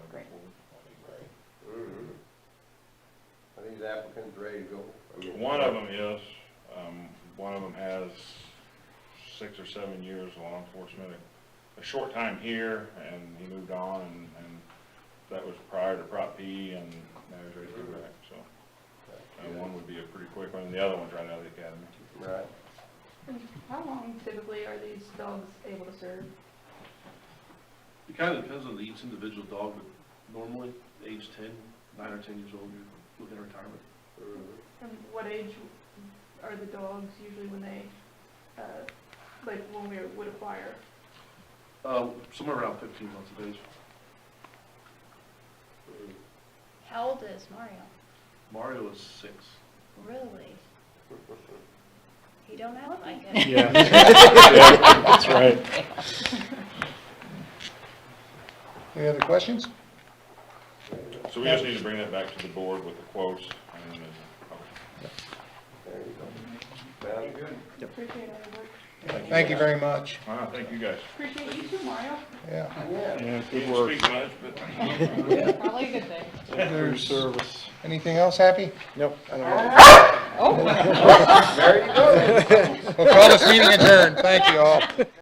Mm-hmm. pumpkins ready to go? I mean- One of them is, um, one of them has six or seven years of law enforcement, a- a short time here, and he moved on, and, and that was prior to Prop P, and now he's ready to go back, so. And one would be a pretty quick one, and the other one's right out of the academy. Right, And How long typically are these dogs able to serve? It kind of depends on each individual dog, but normally, age 10, 9 or 10 years old, you're looking at retirement. Mm-hmm. And what age are the dogs usually when they, uh, like when we would acquire? Uh, Somewhere around 15 months of age. Mm-hmm. How old is Mario? Mario is six. Really? He don't act like it. Yeah. Yeah, That's right. Any other questions? So we just need to bring that back to the board with the quotes, and uh, then, there you go. Sounds good. Appreciate all your work. Thank you very much. all right, thank you guys. Appreciate you too, Mario. Yeah. Yeah. Yeah, Didn't speak much, but Probably a good thing. There's, anything else, Happy? Oh. Nope. There you go. We'll call this meeting adjourned. Thank you all.